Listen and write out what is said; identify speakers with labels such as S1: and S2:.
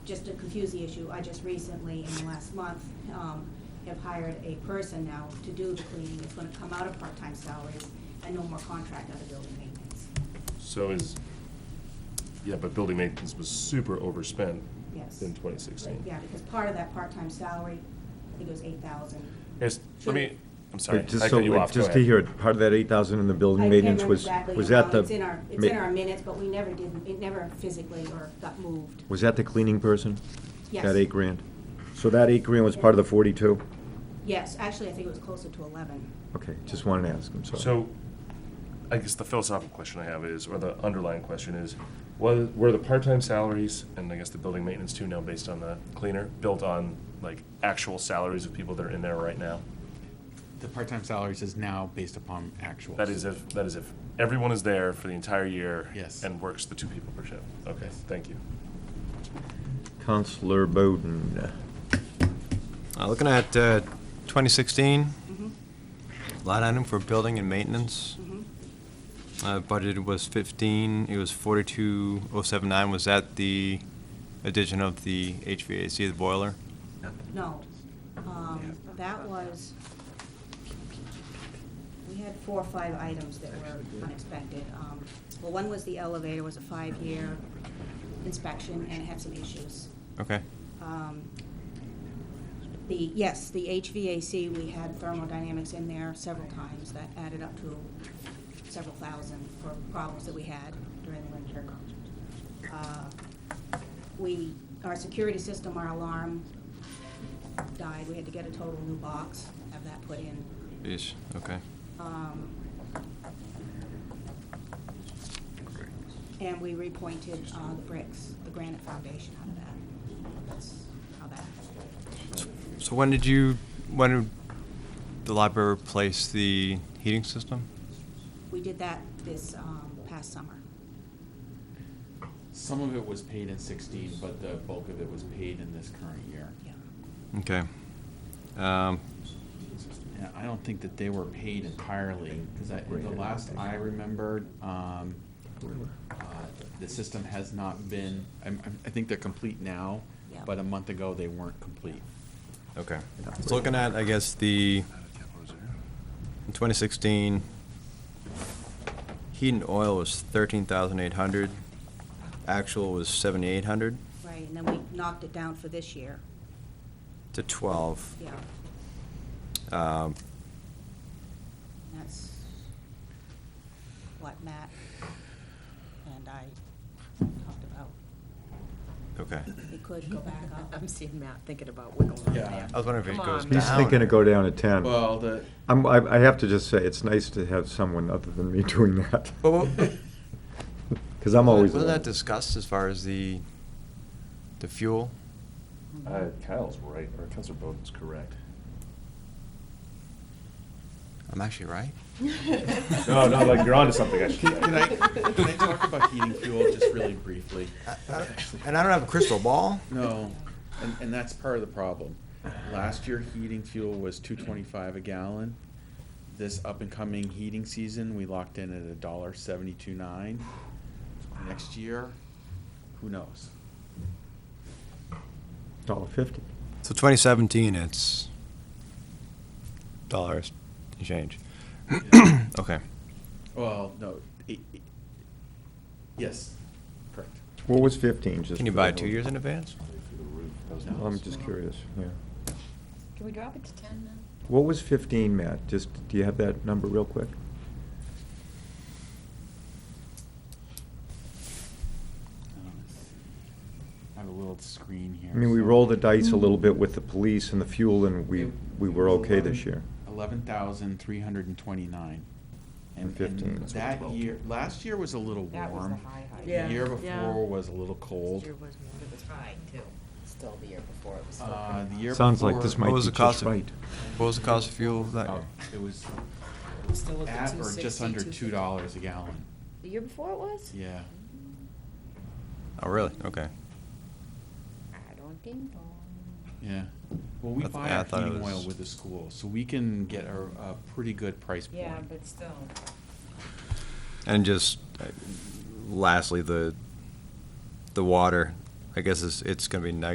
S1: just to confuse the issue, I just recently, in the last month, um, have hired a person now to do the cleaning. It's gonna come out of part-time salaries and no more contract out of building maintenance.
S2: So is, yeah, but building maintenance was super overspent
S1: Yes.
S2: in twenty sixteen.
S1: Yeah, because part of that part-time salary, I think it was eight thousand.
S2: let me, I'm sorry, I
S3: Wait, Just
S2: cut
S3: so,
S2: you
S3: wait,
S2: off, go
S3: just to
S2: ahead.
S3: hear, it, part of that eight thousand in the building maintenance was, was that the?
S1: It's in our, it's
S3: ma-
S1: in our minutes, but we never did, it never physically or got moved.
S3: Was that the cleaning person?
S1: Yes.
S3: That eight grand? So that eight grand was part of the forty-two?
S1: Yes, actually, I think it was closer to eleven.
S3: Okay, just wanted to ask, I'm sorry.
S2: So, I guess the philosophical question I have is, or the underlying question is, was, were the part-time salaries, and I guess the building maintenance too now based on the cleaner, built on like actual salaries of people that are in there right now?
S4: The part-time salaries is now based upon actuals.
S2: That is if, that is if everyone is there for the entire year.
S4: Yes.
S2: And works the two people per shift. Okay,
S4: Yes.
S2: thank you.
S3: Counselor Bowden,
S5: Uh, Looking at uh, 2016,
S1: Mm-hmm,
S5: line item for building and maintenance,
S1: mm-hmm.
S5: uh, budgeted was 15, it was 42079, was that the addition of the HVAC, the boiler?
S1: No, um, that was, we had four or five items that were unexpected. Um, Well, one was the elevator, was a five-year inspection, and it had some issues.
S5: Okay,
S1: Um, The, yes, the HVAC, we had thermodynamics in there several times, that added up to several thousand for problems that we had during the winter. Uh, We, our security system, our alarm died, we had to get a total new box, have that put in.
S5: Ish. okay.
S1: Um, And we repointed uh, the bricks, the granite foundation out of that. That's how that
S5: So when did you, when did the library replace the heating system?
S1: We did that this um, past summer.
S4: Some of it was paid in sixteen, but the bulk of it was paid in this current year.
S1: Yeah.
S5: Okay. Um,
S4: And I don't think that they were paid entirely, because I, the last I remembered, um, uh, the system has not been, I, I think they're complete now,
S1: Yeah.
S4: but a month ago, they weren't complete.
S5: Okay. So looking at, I guess, the In 2016, heat and oil was 13,800. Actual was 7,800
S1: Right, and then we knocked it down for this year,
S5: to 12.
S1: yeah.
S5: Um,
S1: That's what Matt and I talked about.
S5: Okay.
S1: It could go back up.
S6: I'm seeing Matt thinking about wiggling
S4: Yeah.
S6: out there.
S4: I
S5: was wondering if it
S6: Come
S5: goes
S6: on.
S3: he's
S5: Down.
S3: thinking of go down to ten.
S4: Well, the,
S3: I'm, I, I have to just say, it's nice to have someone other than me doing that.
S5: But what-
S3: Cause I'm always.
S5: Wasn't
S3: the one.
S5: that discussed as far as the, the fuel?
S6: Mm-hmm.
S2: Uh, Kyle's right, or Counselor Bowden's correct.
S5: I'm actually right?
S2: No, no, like you're onto something, actually.
S4: can I, can I talk about heating fuel just really briefly?
S5: I- I- And I don't have a crystal ball.
S4: No, and, and that's part of the problem. Last year, heating fuel was two twenty-five a gallon. This up-and-coming heating season, we locked in at a dollar seventy-two nine. Next year, who knows?
S3: Dollar fifty.
S5: So 2017, it's dollars and change. Okay.
S4: Well, no, it- it- yes, correct.
S3: What was fifteen? just
S5: Can you
S3: for
S5: buy
S3: the-
S5: two years in advance?
S3: I'm just curious, yeah.
S7: Can we drop it to ten now?
S3: What was fifteen, Matt? Just, do you have that number real quick?
S4: I have a little screen here.
S3: I mean, we rolled the dice a little bit with the police and the fuel, and we, we were okay this year.
S4: Eleven thousand three hundred and twenty-nine.
S3: And 15. That's what
S4: That
S2: twelve.
S4: year, last year was a little warm.
S7: That was the high, high.
S6: Yeah.
S4: The year
S6: Yeah.
S4: before was a little cold.
S6: It was high too. Still the year before it was still.
S4: Uh,
S6: pretty
S4: the
S6: high.
S4: year
S3: Sounds like this
S4: before-
S3: might
S5: What
S3: be
S5: was the cost
S3: just
S5: of-
S3: right.
S5: What was the cost of fuel that
S4: Oh,
S5: year?
S4: It was
S6: Still at the
S4: at or just
S6: 260,
S4: under two
S6: 250.
S4: dollars a gallon.
S7: The year before it was?
S4: Yeah.
S5: Oh, really? Okay.
S7: I don't ding dong.
S4: Yeah. Well, we
S5: That's-
S4: buy
S5: I
S4: our
S5: thought it
S4: heating
S5: was-
S4: oil with the school, so we can get a, a pretty good price point.
S6: Yeah, but still.
S5: And just uh, lastly, the, the water, I guess it's, it's gonna be neg-